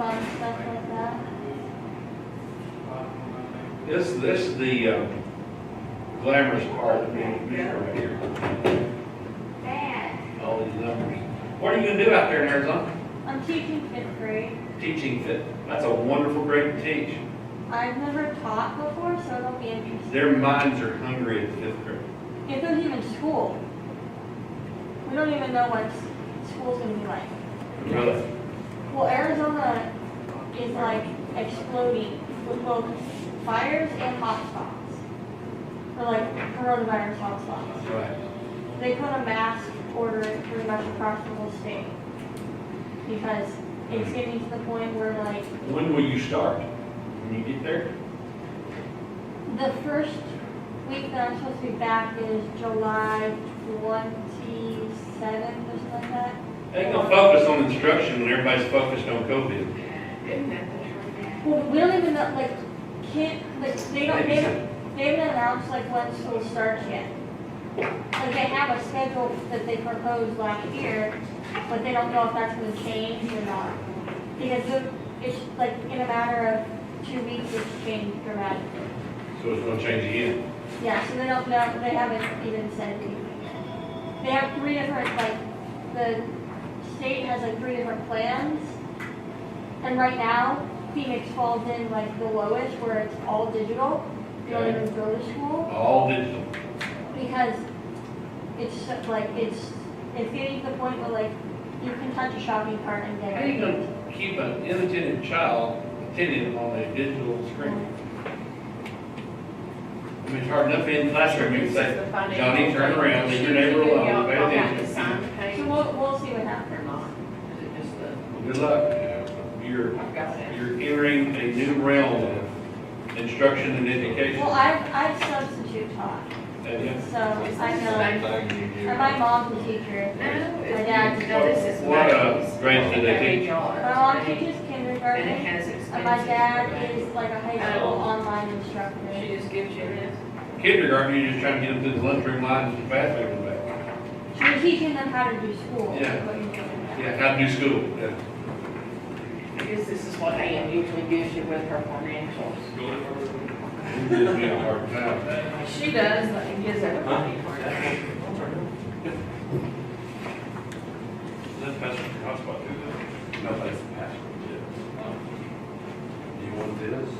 and stuff like that. This, this, the uh, glamorous part of being a commissioner right here, Bad. all these numbers. What are you gonna do out there in Arizona? I'm teaching fifth grade. Teaching fit, that's a wonderful grade to teach. I've never taught before, so it'll be interesting. Their minds are hungry at fifth grade. It's not even school. We don't even know what s- school's gonna be like. Really? Well, Arizona is like exploding with both fires and hotspots. Or like coronavirus hotspots. Right. They put a mask order pretty much across the whole state. Because it's getting to the point where like When will you start? When you get there? The first week that I'm supposed to be back is July twenty-seventh or something like that. They gonna focus on instruction when everybody's focused on COVID. Well, we don't even know, like, can't, like, they don't, they haven't, they haven't announced like when school starts yet. Like, they have a schedule that they proposed last year, but they don't know if that's gonna change or not. Because it- it's like in a matter of two weeks, it's changed dramatically. So it's gonna change again. Yeah, so they don't know, they haven't even said anything yet. They have three different, like, the state has like three different plans. And right now, Phoenix falls in like the lowest where it's all digital. You don't even go to school All digital. because it's so- like, it's, it's getting to the point where like you can touch a shopping cart and How get are you it. gonna keep an inattentive child attentive on a digital screen? I mean, it's hard enough in the classroom, you can say, Johnny, turn around, leave your neighbor alone, pay attention. So we'll, we'll see what happens. Well, Good luck. You're, you're entering a new realm of instruction and education. Well, I've, I've substitute taught, Have you? so I know, and my mom's a teacher. My dad's- No, this is. What, uh, Maggie's. grades do they teach? My mom teaches kindergarten, And it and has expenses. my dad is like a high school online instructor. She just gives you this. Kindergarten, you're just trying to get them through the lunchroom lines and bathroom and back. She's teaching them how to do school. Yeah. is what you're doing. Yeah, how to do school. Yeah. I guess this is what AM usually gives you with her financials. It gives me a hard time. She does, but it gives everybody. That passes your hotspot too, though? No, that's password, yeah. Um, Do you want this?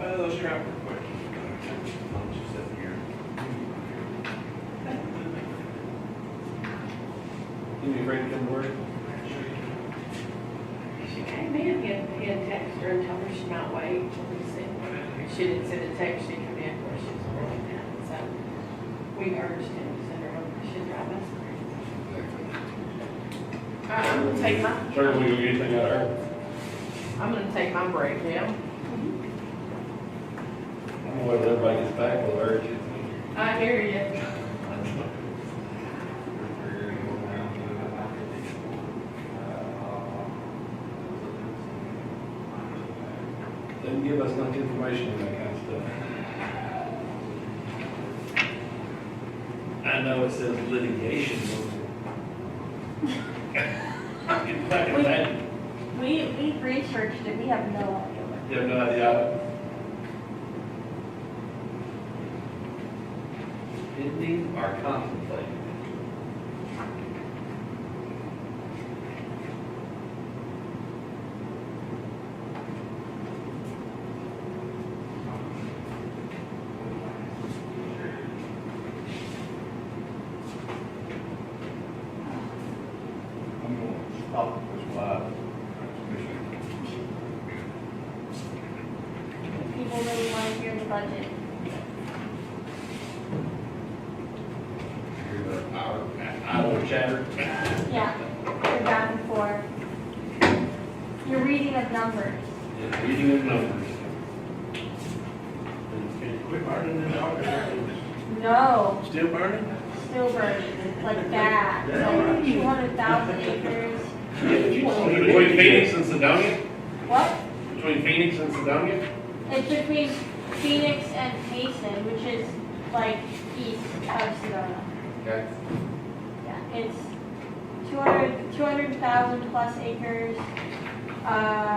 Uh, let's try it real quick. I'll just sit here. You be afraid to come to work? She came in, he had, he had texted her and told her she might wait till we sent. She didn't send a text, she came in, of course, she was really mad, so we urged him to send her home, she drive us crazy. All right, I'm gonna take my, Sir, we gonna get anything out of her? I'm gonna take my break now. Boy, if everybody gets back, we'll urge you. I hear you. Doesn't give us much information on that kind of stuff. I know it says litigation. I can fucking imagine. We, we researched it, we have no idea. what- You have no idea. Pending or contemplating? I'm gonna stop this live. People really want to hear the budget. Our idle chatter. Yeah, you're back and forth. You're reading of numbers. Yeah, Reading of numbers. Can you quit burning in the office? No, Still burning? still burning, like bad. Like two hundred thousand acres. Between Phoenix and Sedonia? What? Between Phoenix and Sedonia? It's between Phoenix and Mason, which is like east of Sedona. Okay. Yeah, it's 200 200,000 plus acres. Uh,